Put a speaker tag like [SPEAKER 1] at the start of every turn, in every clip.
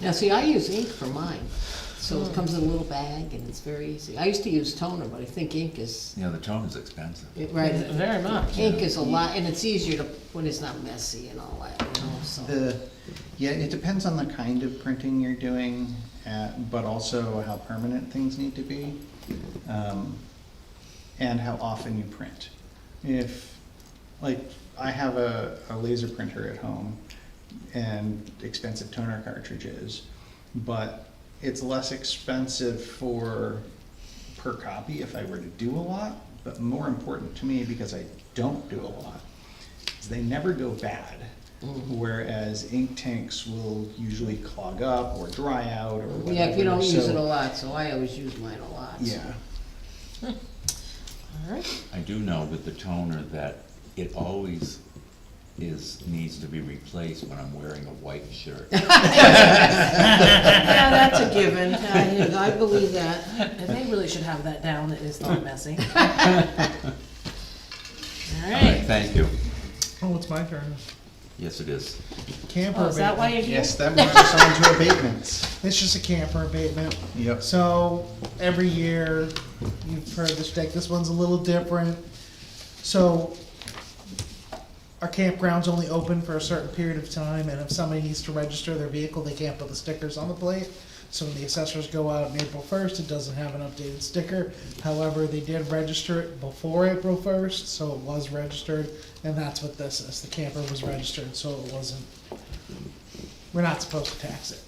[SPEAKER 1] Now, see, I use ink for mine, so it comes in a little bag and it's very easy. I used to use toner, but I think ink is,
[SPEAKER 2] You know, the tone is expensive.
[SPEAKER 1] it- right,
[SPEAKER 3] Very much.
[SPEAKER 1] ink is a lot, and it's easier to, when it's not messy and all that, you know, so.
[SPEAKER 4] The, yeah, it depends on the kind of printing you're doing, uh, but also how permanent things need to be, um, and how often you print. If, like, I have a, a laser printer at home and expensive toner cartridges, but it's less expensive for, per copy if I were to do a lot, but more important to me because I don't do a lot is they never go bad.
[SPEAKER 1] Mm-hmm.
[SPEAKER 4] Whereas ink tanks will usually clog up or dry out or whatever.
[SPEAKER 1] Yeah, if you don't use
[SPEAKER 4] so-
[SPEAKER 1] it a lot, so I always use mine a lot. so.
[SPEAKER 4] Yeah,
[SPEAKER 3] All right.
[SPEAKER 2] I do know with the toner that it always is, needs to be replaced when I'm wearing a white shirt.
[SPEAKER 1] Yeah, that's a given. I, I believe that.
[SPEAKER 3] And they really should have that down. It is not messy. All right.
[SPEAKER 2] Thank you.
[SPEAKER 5] Oh, it's my turn.
[SPEAKER 2] Yes, it is.
[SPEAKER 5] Camper
[SPEAKER 3] Oh, is that why
[SPEAKER 5] abatement.
[SPEAKER 3] you're here?
[SPEAKER 4] yes, that moves us on to abatements.
[SPEAKER 5] It's just a camper abatement.
[SPEAKER 4] Yep.
[SPEAKER 5] So every year, you've heard this deck. This one's a little different. So our campground's only open for a certain period of time, and if somebody needs to register their vehicle, they can't put the stickers on the plate. So when the assessors go out on April first, it doesn't have an updated sticker. However, they did register it before April first, so it was registered, and that's what this is. The camper was registered, so it wasn't. We're not supposed to tax it.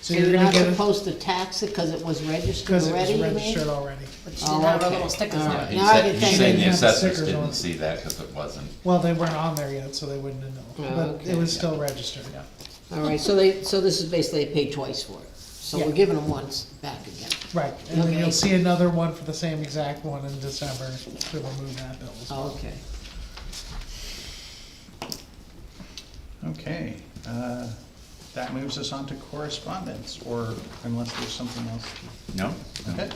[SPEAKER 5] So
[SPEAKER 1] You're not
[SPEAKER 5] gonna get a-
[SPEAKER 1] supposed to tax it because it was registered
[SPEAKER 5] because it
[SPEAKER 1] already,
[SPEAKER 5] was
[SPEAKER 1] you mean?
[SPEAKER 5] registered already.
[SPEAKER 3] But
[SPEAKER 1] Oh,
[SPEAKER 3] you didn't have our
[SPEAKER 1] okay.
[SPEAKER 3] little stickers
[SPEAKER 1] All
[SPEAKER 3] on
[SPEAKER 1] right.
[SPEAKER 3] it.
[SPEAKER 2] He's
[SPEAKER 1] Now I
[SPEAKER 2] sa-
[SPEAKER 1] get
[SPEAKER 2] he's
[SPEAKER 1] that.
[SPEAKER 2] saying the
[SPEAKER 5] Didn't have the
[SPEAKER 2] assessors
[SPEAKER 5] stickers on
[SPEAKER 2] didn't
[SPEAKER 5] it.
[SPEAKER 2] see that because it wasn't,
[SPEAKER 5] Well, they weren't on there yet, so they wouldn't have
[SPEAKER 1] Oh,
[SPEAKER 5] known, but
[SPEAKER 1] okay.
[SPEAKER 5] it was still registered.
[SPEAKER 2] yeah.
[SPEAKER 1] All right, so they, so this is basically they paid twice for it. So we're
[SPEAKER 5] Yeah.
[SPEAKER 1] giving them once back again.
[SPEAKER 5] Right, and then
[SPEAKER 1] Okay.
[SPEAKER 5] you'll see another one for the same exact one in December to remove that bill. as well.
[SPEAKER 1] Okay.
[SPEAKER 4] Okay, uh, that moves us on to correspondence, or unless there's something else.
[SPEAKER 2] No?
[SPEAKER 4] to- Okay.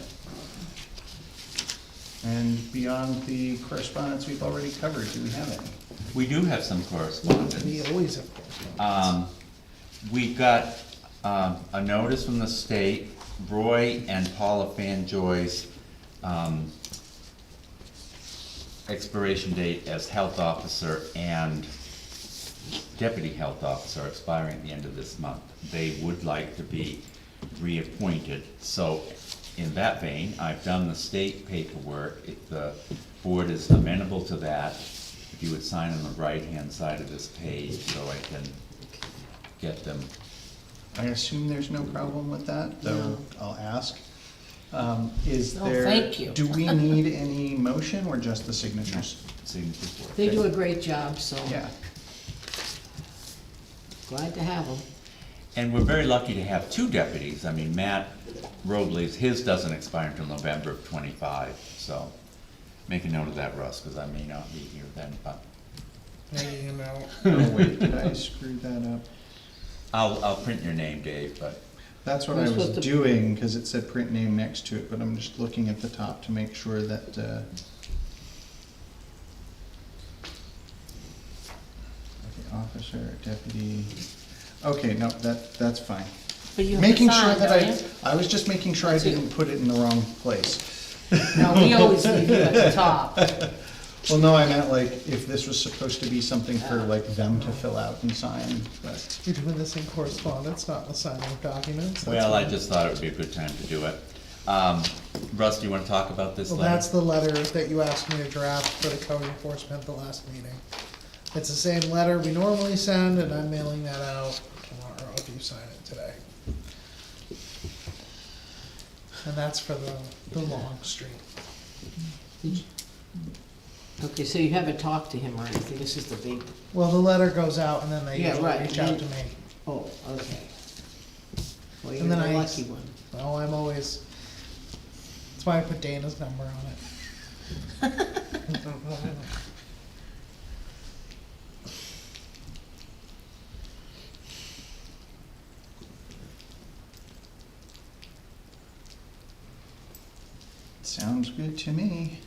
[SPEAKER 4] And beyond the correspondence we've already covered, do we have any?
[SPEAKER 2] We do have some correspondence.
[SPEAKER 5] We always have correspondence.
[SPEAKER 1] Uh.
[SPEAKER 2] Um, we got, um, a notice from the state, Roy and Paula Fanjoy's, um, expiration date as health officer and deputy health officer expiring at the end of this month. They would like to be reappointed, so in that vein, I've done the state paperwork. If the board is amenable to that, if you would sign on the right-hand side of this page, so I can get them.
[SPEAKER 4] I assume there's no problem with that, though
[SPEAKER 1] No.
[SPEAKER 4] I'll ask. Um, Is
[SPEAKER 3] No,
[SPEAKER 4] there?
[SPEAKER 3] Oh, thank you.
[SPEAKER 4] Do we need any motion or just the signatures?
[SPEAKER 2] signature for it.
[SPEAKER 1] They do a great job, so
[SPEAKER 4] Yeah,
[SPEAKER 1] glad to have them.
[SPEAKER 2] And we're very lucky to have two deputies. I mean, Matt Robles, his doesn't expire until November of twenty-five, so make a note of that, Russ, because I may not be here then, but
[SPEAKER 5] Maybe, you know,
[SPEAKER 4] oh wait, did I screw that up?
[SPEAKER 2] I'll, I'll print your name, Dave, but
[SPEAKER 4] That's what
[SPEAKER 1] We're
[SPEAKER 4] I was
[SPEAKER 1] supposed to-
[SPEAKER 4] doing, because it said print name next to it, but I'm just looking at the top to make sure that, uh. Okay, officer, deputy, okay, no, that, that's fine.
[SPEAKER 3] But you have to
[SPEAKER 4] Making sure
[SPEAKER 3] sign,
[SPEAKER 4] that
[SPEAKER 3] don't
[SPEAKER 4] I, I was just making sure I didn't put it in the wrong place.
[SPEAKER 3] No, we always leave you at the top.
[SPEAKER 4] Well, no, I meant like, if this was supposed to be something for
[SPEAKER 3] Ah.
[SPEAKER 4] like them to fill out and sign, but.
[SPEAKER 5] you're doing this in correspondence, not in the signing of documents. that's
[SPEAKER 2] Well, I
[SPEAKER 5] fine.
[SPEAKER 2] just thought it would be a good time to do it. Um, Russ, do you wanna talk about this
[SPEAKER 5] Well,
[SPEAKER 2] letter?
[SPEAKER 5] that's the letter that you asked me to draft for the code enforcement at the last meeting. It's the same letter we normally send, and I'm mailing that out tomorrow if you sign it today. And that's for the, the long street.
[SPEAKER 1] Okay, so you haven't talked to him or anything, this is the big,
[SPEAKER 5] Well, the letter goes out and then they
[SPEAKER 1] Yeah,
[SPEAKER 5] usually
[SPEAKER 1] right.
[SPEAKER 5] reach out to me.
[SPEAKER 1] oh, okay. Well, you're
[SPEAKER 5] And
[SPEAKER 1] the
[SPEAKER 5] then I-
[SPEAKER 1] lucky one.
[SPEAKER 5] Well, I'm always, that's why I put Dana's number on it.
[SPEAKER 4] Sounds good to me.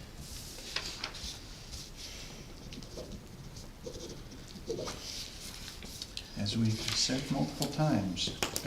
[SPEAKER 4] As we've said multiple times,